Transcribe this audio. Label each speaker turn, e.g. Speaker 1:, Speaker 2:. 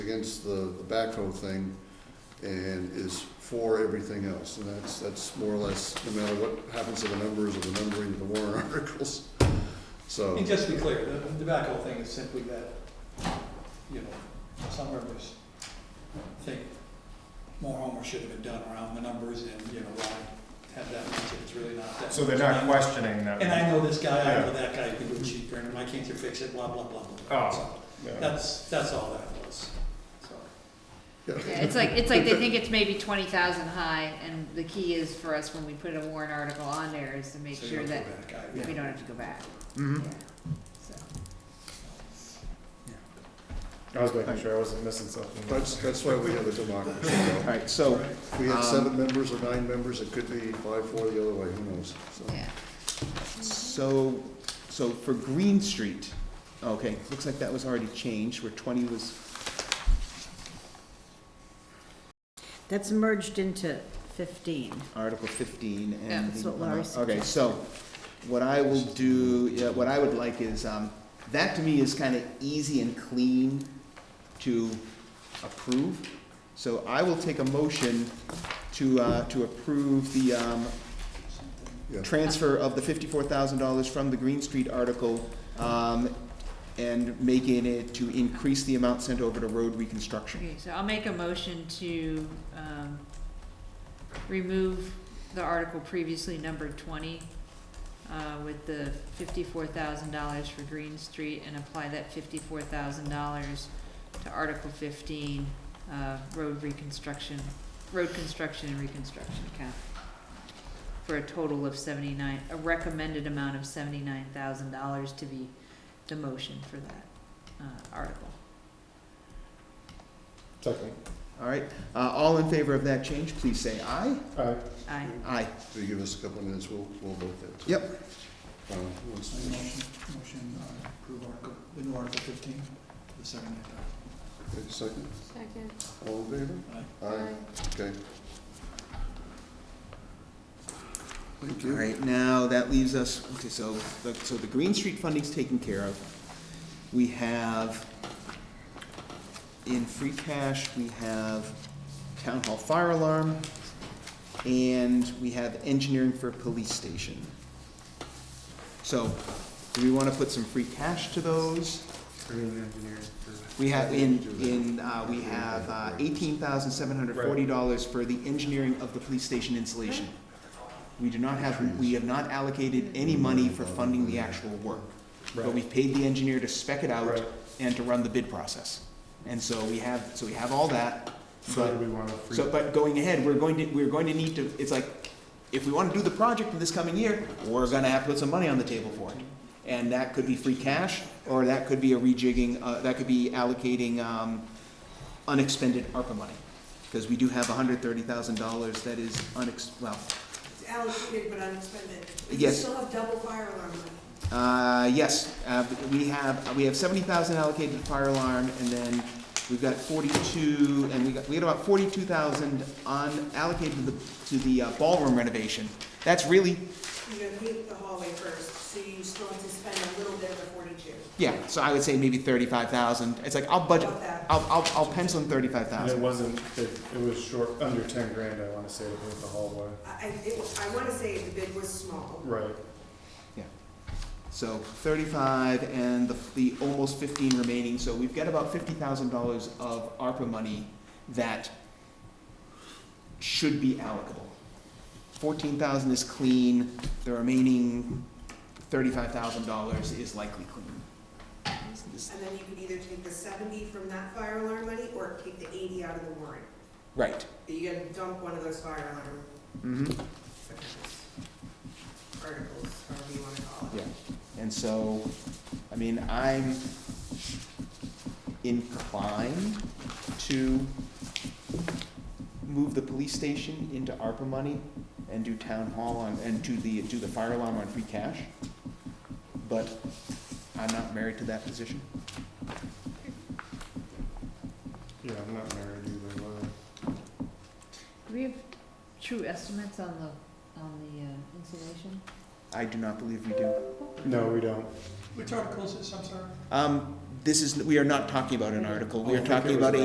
Speaker 1: against the the backhoe thing and is for everything else. And that's, that's more or less, no matter what happens to the numbers or the numbering of the warrant articles. So,
Speaker 2: And just to be clear, the the tobacco thing is simply that, you know, some members think more homework should have been done around the numbers and, you know, why have that much if it's really not that.
Speaker 3: So they're
Speaker 2: much.
Speaker 3: not questioning that.
Speaker 2: And I know this guy, I know
Speaker 3: Yeah.
Speaker 2: that guy, you can do it cheaper, and why can't you fix it, blah, blah, blah, blah.
Speaker 3: Oh.
Speaker 2: So
Speaker 3: Yeah.
Speaker 2: That's, that's all that was, so.
Speaker 1: yeah,
Speaker 4: Yeah, it's like, it's like they think it's maybe twenty thousand high, and the key is for us when we put a warrant article on there is to make
Speaker 2: so you
Speaker 4: sure
Speaker 2: don't
Speaker 4: that
Speaker 2: go back. I-
Speaker 4: we don't have to go back.
Speaker 3: Mhm.
Speaker 4: Yeah. So,
Speaker 3: I was making sure I wasn't missing something.
Speaker 1: that's, that's why we have a democracy. though.
Speaker 5: All right, so,
Speaker 1: If we
Speaker 5: Um,
Speaker 1: had seven members or nine members, it could be five, four the other way, who knows? So,
Speaker 4: yeah.
Speaker 5: so, so for Green Street, okay, looks like that was already changed, where twenty was,
Speaker 6: That's merged into 15.
Speaker 5: Article fifteen and.
Speaker 4: Yeah,
Speaker 6: that's
Speaker 5: the- uh,
Speaker 6: what Laurie
Speaker 5: Okay, so what I will do, yeah, what I would like is, um, that to me is kind of easy and clean to approve. So I will take a motion to, uh, to approve the, um,
Speaker 1: yeah.
Speaker 5: transfer of the fifty-four thousand dollars from the Green Street article, um, and making it to increase the amount sent over to road reconstruction.
Speaker 4: Okay, so I'll make a motion to, um, remove the article previously numbered twenty, uh, with the fifty-four thousand dollars for Green Street, and apply that fifty-four thousand dollars to Article fifteen, uh, road reconstruction, road construction and reconstruction account, for a total of seventy-nine, a recommended amount of seventy-nine thousand dollars to be the motion for that, uh, article.
Speaker 3: Second.
Speaker 5: All right, uh, all in favor of that change, please say aye.
Speaker 3: Aye.
Speaker 4: Aye.
Speaker 5: Aye.
Speaker 1: If you give us a couple of minutes, we'll, we'll vote that.
Speaker 5: Yep.
Speaker 1: Uh, once-
Speaker 2: So Motion, motion, uh, approve article, the new article fifteen, the second.
Speaker 1: wait a Second,
Speaker 7: Second.
Speaker 1: all in favor?
Speaker 2: Aye.
Speaker 1: Aye, okay. Thank
Speaker 5: All
Speaker 1: you.
Speaker 5: right, now that leaves us, okay, so, the- so the Green Street funding's taken care of. We have, in free cash, we have town hall fire alarm, and we have engineering for police station. So, do we wanna put some free cash to those? We have, in, in, uh, we have eighteen thousand seven hundred forty dollars for the engineering of the police station insulation. We do not have, we have not allocated any money for funding the actual work. But we've paid the engineer to spec it out
Speaker 3: Right.
Speaker 5: and to run the bid process. And so we have, so we have all that,
Speaker 3: So do
Speaker 5: but,
Speaker 3: we want to free?
Speaker 5: so, but going ahead, we're going to, we're going to need to, it's like, if we wanna do the project in this coming year, we're gonna have to put some money on the table for it. And that could be free cash, or that could be a rejigging, uh, that could be allocating, um, unexpended ARPA money. Cause we do have hundred thirty thousand dollars that is unex, well,
Speaker 8: It's allocated but unexpended.
Speaker 5: Yes.
Speaker 8: We still have double fire alarm money.
Speaker 5: Uh, yes, uh, we have, we have seventy thousand allocated to fire alarm, and then we've got forty-two, and we got, we had about forty-two thousand unallocated to the, to the uh, ballroom renovation. That's really,
Speaker 8: You're gonna meet the hallway first, so you still have to spend a little bit of the forty-two.
Speaker 5: yeah, so I would say maybe thirty-five thousand, it's like, I'll budget,
Speaker 8: About that.
Speaker 5: I'll, I'll, I'll pencil in thirty-five
Speaker 3: And it
Speaker 5: thousand.
Speaker 3: wasn't, it, it was short, under ten grand, I want to say, with the hallway.
Speaker 8: I, I, it was- I wanna say the bid was small.
Speaker 3: Right.
Speaker 5: So thirty-five and the, the almost fifteen remaining, so we've got about fifty thousand dollars of ARPA money that should be allocable. Fourteen thousand is clean, the remaining thirty-five thousand dollars is likely clean. Is-
Speaker 8: And then you could either take the seventy from that fire alarm money or take the eighty out of the warrant.
Speaker 5: Right.
Speaker 8: But you gotta dump one of those fire alarm
Speaker 5: Mm-hmm.
Speaker 8: articles, however you wanna call it.
Speaker 5: Yeah, and so, I mean, I'm inclined to move the police station into ARPA money and do town hall on, and do the, do the fire alarm on free cash. But I'm not married to that position.
Speaker 3: Yeah, I'm not married either, but.
Speaker 4: Do we have true estimates on the, on the uh, insulation?
Speaker 5: I do not believe we do.
Speaker 3: No, we don't.
Speaker 2: Which article is this, I'm sorry?
Speaker 5: Um, this is, we are not talking about an article, we
Speaker 3: I
Speaker 5: are
Speaker 3: think it
Speaker 5: talking
Speaker 3: was
Speaker 5: about a